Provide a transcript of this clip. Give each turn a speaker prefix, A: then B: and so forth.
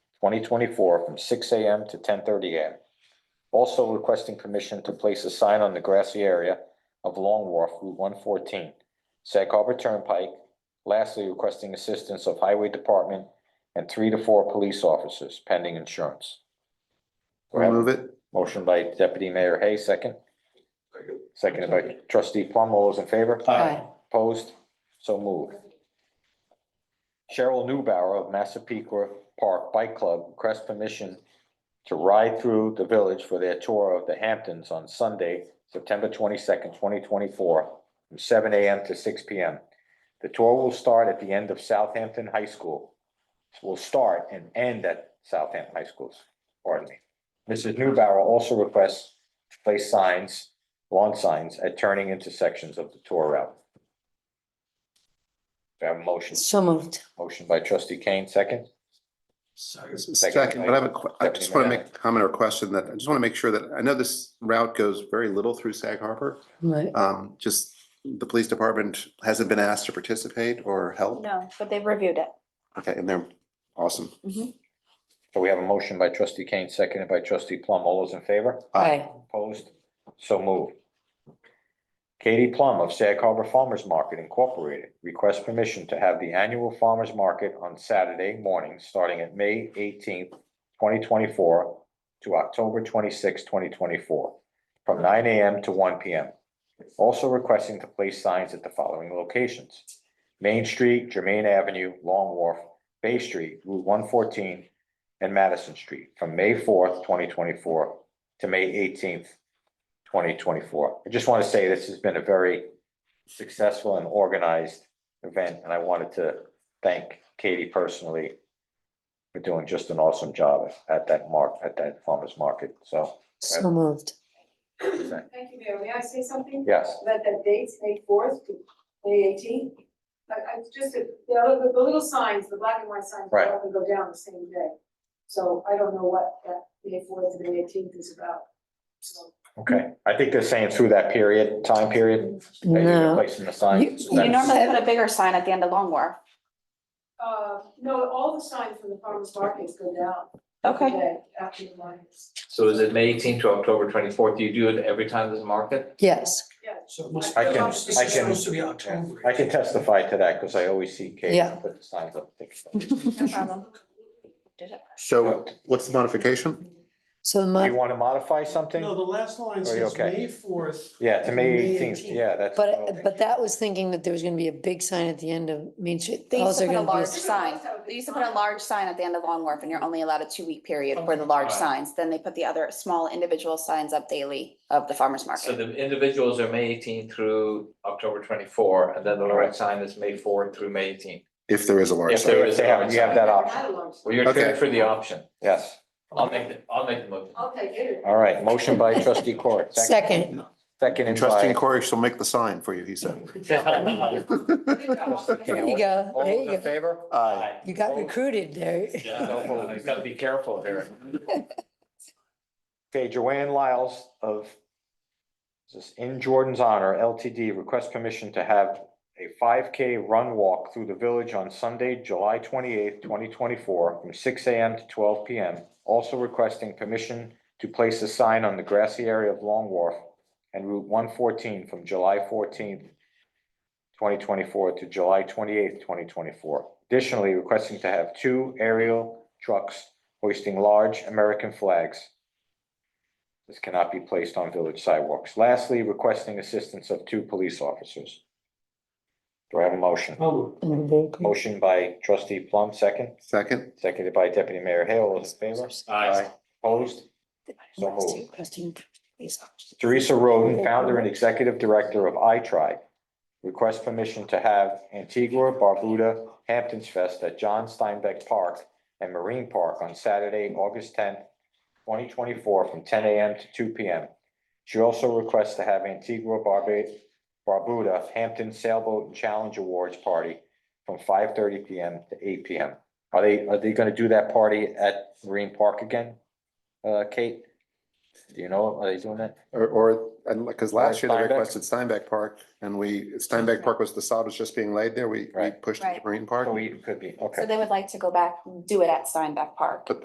A: twenty twenty-four, from six AM to ten thirty AM. Also requesting permission to place a sign on the grassy area of Long Wharf Route one fourteen, Sag Harbor Turnpike. Lastly, requesting assistance of Highway Department and three to four police officers pending insurance.
B: I'll move it.
A: Motion by Deputy Mayor Hay, second. Seconded by trustee Plum. All those in favor?
C: Aye.
A: Opposed? So moved. Cheryl Newbauer of Massapequa Park Bike Club requests permission to ride through the village for their tour of the Hamptons on Sunday, September twenty-second, twenty twenty-four, from seven AM to six PM. The tour will start at the end of Southampton High School. Will start and end at Southampton High Schools, pardon me. Mrs. Newbauer also requests to place signs, lawn signs at turning intersections of the tour route. Do I have a motion?
C: So moved.
A: Motion by trustee Kane, second.
B: Second, but I have a, que- I just want to make a comment or a question that, I just want to make sure that, I know this route goes very little through Sag Harbor.
C: Right.
B: Um, just the police department hasn't been asked to participate or help.
D: No, but they've reviewed it.
B: Okay, and they're awesome.
A: So we have a motion by trustee Kane, seconded by trustee Plum. All those in favor?
C: Aye.
A: Opposed? So moved. Katie Plum of Sag Harbor Farmers Market Incorporated requests permission to have the annual farmers market on Saturday morning, starting at May eighteenth, twenty twenty-four to October twenty-sixth, twenty twenty-four, from nine AM to one PM. Also requesting to place signs at the following locations. Main Street, Germain Avenue, Long Wharf, Bay Street, Route one fourteen, and Madison Street, from May fourth, twenty twenty-four to May eighteenth, twenty twenty-four. I just want to say this has been a very successful and organized event, and I wanted to thank Katie personally for doing just an awesome job at that mark, at that farmer's market, so.
C: So moved.
E: Thank you, Mayor. May I say something?
A: Yes,
E: About that dates, May fourth to May eighteenth. I, I just, the, other- the little signs, the black and white signs, they
A: Right.
E: all go down the same day. So I don't know what that May fourth to May eighteenth is about. So
A: okay. I think they're saying through that period, time period, that you're
C: No,
A: placing the signs.
C: You
D: You normally put a bigger sign at the end of Long Wharf.
E: Uh, no, all the signs from the farmer's markets go down.
D: Okay.
E: every day After the lines.
F: So is it May eighteenth to October twenty-fourth? Do you do it every time there's a market?
C: yes,
E: Yeah,
G: So it must,
A: I
G: it's
A: can- I can-
G: supposed to be
A: Yeah,
G: October.
A: I can testify to that because I always see Katie
C: Yeah.
A: put the signs up.
D: No problem. Did it?
B: So what's the modification?
C: so
A: Do you
C: my,
A: want to modify something?
G: No, the last line
A: Are you
G: says
A: okay?
G: May fourth.
A: Yeah, to May
G: May
A: eighteenth,
G: 18th.
A: yeah, that's.
C: but, but that was thinking that there was gonna be a big sign at the end of Main Street.
D: They used
C: Alls
D: to
C: are
D: put a
C: gonna be
D: large
C: is-
D: sign. They used to put a large sign at the end of Long Wharf and you're only allowed a two-week period for the large
F: Okay.
D: signs. Then they put the other small individual signs up daily of the farmer's
F: So
D: market.
F: the individuals are May eighteenth through October twenty-four, and then the large
A: Correct.
F: sign is May fourth through May eighteenth.
B: If there is a large
F: If there
B: sign.
F: is
A: They
F: a
A: have,
F: large
A: you have
F: sign.
A: that
E: I
A: option,
E: had a large sign.
F: Well, you're
B: Okay.
F: good for the option.
A: yes.
F: I'll make the, I'll make the motion.
E: I'll take it.
A: All right, motion by trustee Court.
C: Second,
A: Second
B: Trustee
A: by,
B: Corey shall make the sign for you, he said.
E: Good job.
C: there you go,
A: all
C: there
A: those
C: you
A: in
C: go.
A: favor?
B: Aye.
C: You got recruited there.
F: Yeah, no, you gotta be careful here.
A: Okay, Joanne Lyles of this is in Jordan's honor LTD requests permission to have a five K run walk through the village on Sunday, July twenty eighth, twenty twenty four, from six AM to twelve PM. Also requesting permission to place a sign on the grassy area of Long Wharf and Route one fourteen from July fourteenth, twenty twenty four to July twenty eighth, twenty twenty four. Additionally, requesting to have two aerial trucks hoisting large American flags this cannot be placed on village sidewalks. Lastly, requesting assistance of two police officers. Do I have a motion?
G: Oh,
C: And very good.
A: Motion by trustee Plum, second,
B: Second,
A: seconded by deputy mayor Hale, all those in favor?
F: Aye.
A: Opposed? So
C: Requesting-
A: moved.
C: requesting police officers.
A: Teresa Roden, founder and executive director of iTribe, requests permission to have Antigua Barbuda Hamptons Fest at John Steinbeck Park and Marine Park on Saturday, August tenth, twenty twenty-four, from ten AM to two PM. She also requests to have Antigua Barba- Barbuda Hampton Sailboat and Challenge Awards Party from five thirty PM to eight PM. Are they, are they gonna do that party at Marine Park again? Uh, Kate? Do you know, are they doing that?
B: or, or, and because last year they
A: Steinbeck?
B: requested Steinbeck Park and we, Steinbeck Park was, the sod was just being laid there. We, we
A: Right.
B: pushed it to
D: Right.
B: Marine Park.
A: Oh, we- it could be, okay.
D: So they would like to go back, do it at Steinbeck Park.